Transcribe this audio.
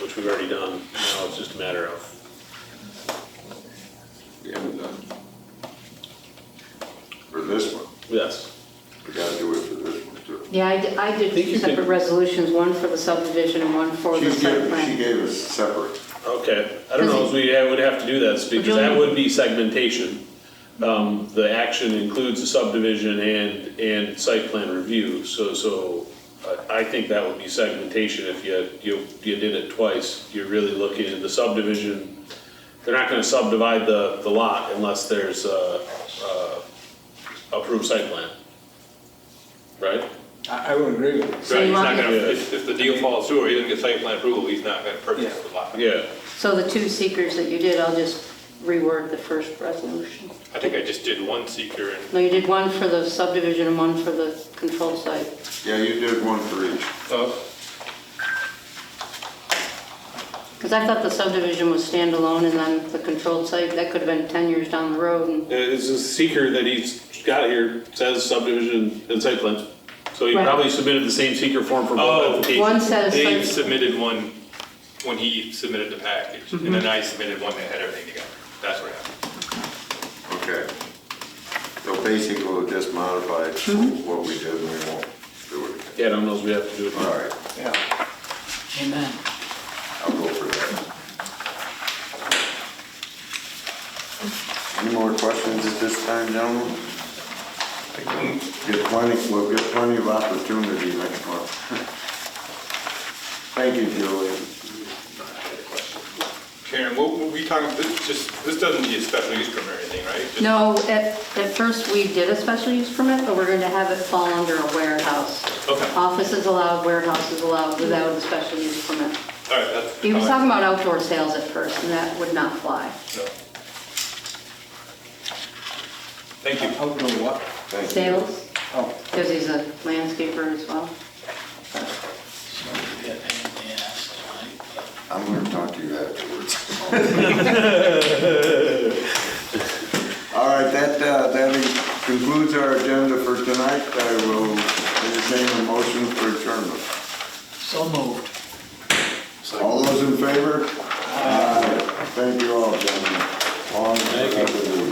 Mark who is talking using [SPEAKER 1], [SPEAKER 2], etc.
[SPEAKER 1] which we've already done. Now it's just a matter of,
[SPEAKER 2] We haven't done. uh, For this one,
[SPEAKER 1] yes.
[SPEAKER 2] we gotta do it for this one too.
[SPEAKER 3] Yeah, I did, I did
[SPEAKER 1] Think you
[SPEAKER 3] two separate
[SPEAKER 1] can-
[SPEAKER 3] resolutions, one for the subdivision and one for
[SPEAKER 2] She
[SPEAKER 3] the site
[SPEAKER 2] gave, she
[SPEAKER 3] plan.
[SPEAKER 2] gave us separate.
[SPEAKER 1] Okay, I don't know if we I would have to do this because that would be segmentation. Um, The action includes the subdivision and, and site plan review, so, so I- I think that would be segmentation if you, you, you did it twice. You're really looking at the subdivision, they're not gonna subdivide the, the lot unless there's a, a approved site plan. Right?
[SPEAKER 4] I, I would agree with you.
[SPEAKER 3] So you
[SPEAKER 5] Right, he's
[SPEAKER 3] want
[SPEAKER 5] not
[SPEAKER 3] me-
[SPEAKER 5] gonna, if, if the deal falls through, or he doesn't get site plan approval, he's not gonna purchase
[SPEAKER 4] Yeah.
[SPEAKER 5] the lot.
[SPEAKER 1] Yeah,
[SPEAKER 3] So the two seekers that you did, I'll just rework the first resolution.
[SPEAKER 5] I think I just did one seeker and
[SPEAKER 3] No, you did one for the subdivision and one for the control site.
[SPEAKER 2] Yeah, you did one for each.
[SPEAKER 3] Because I thought the subdivision was standalone and then the controlled site, that could have been 10 years down the road and
[SPEAKER 1] It's a seeker that he's got here, says subdivision and site plans. So he
[SPEAKER 3] Right.
[SPEAKER 1] probably submitted the same seeker form for
[SPEAKER 5] Oh.
[SPEAKER 1] both
[SPEAKER 3] one
[SPEAKER 1] applications.
[SPEAKER 3] says
[SPEAKER 5] Dave
[SPEAKER 3] site,
[SPEAKER 5] submitted one when he submitted the package, and
[SPEAKER 3] Mm-hmm.
[SPEAKER 5] then I submitted one that had everything together. That's what happened.
[SPEAKER 2] Okay. So basically, we'll just modify
[SPEAKER 3] Mm-hmm.
[SPEAKER 2] what we did and we won't do it. again.
[SPEAKER 1] Yeah, I don't know if we have to do it.
[SPEAKER 2] All right,
[SPEAKER 4] Yeah. Amen.
[SPEAKER 2] I'll go for that. Any more questions at this time, gentlemen? Get plenty, we'll get plenty of opportunity next month. Thank you, Julie.
[SPEAKER 5] Karen, what were we talking, this just, this doesn't need a special use permit or anything, right? Just-
[SPEAKER 3] no, at, at first we did a special use permit, but we're going to have it fall under a warehouse.
[SPEAKER 5] Okay.
[SPEAKER 3] Office is allowed, warehouse is allowed without a special use permit.
[SPEAKER 5] All right, that's.
[SPEAKER 3] He was talking about outdoor sales at first and that would not fly.
[SPEAKER 5] No. Thank you.
[SPEAKER 4] Outdoor what?
[SPEAKER 2] Thank you.
[SPEAKER 3] Sales,
[SPEAKER 4] Oh.
[SPEAKER 3] because he's a landscaper as well.
[SPEAKER 2] I'm gonna talk to you afterwards. All right, that, uh, that concludes our agenda for tonight. I will entertain a motion for adjournment.
[SPEAKER 4] So moved.
[SPEAKER 2] All those in favor? Aye. Thank you all, gentlemen. Long. Thank you.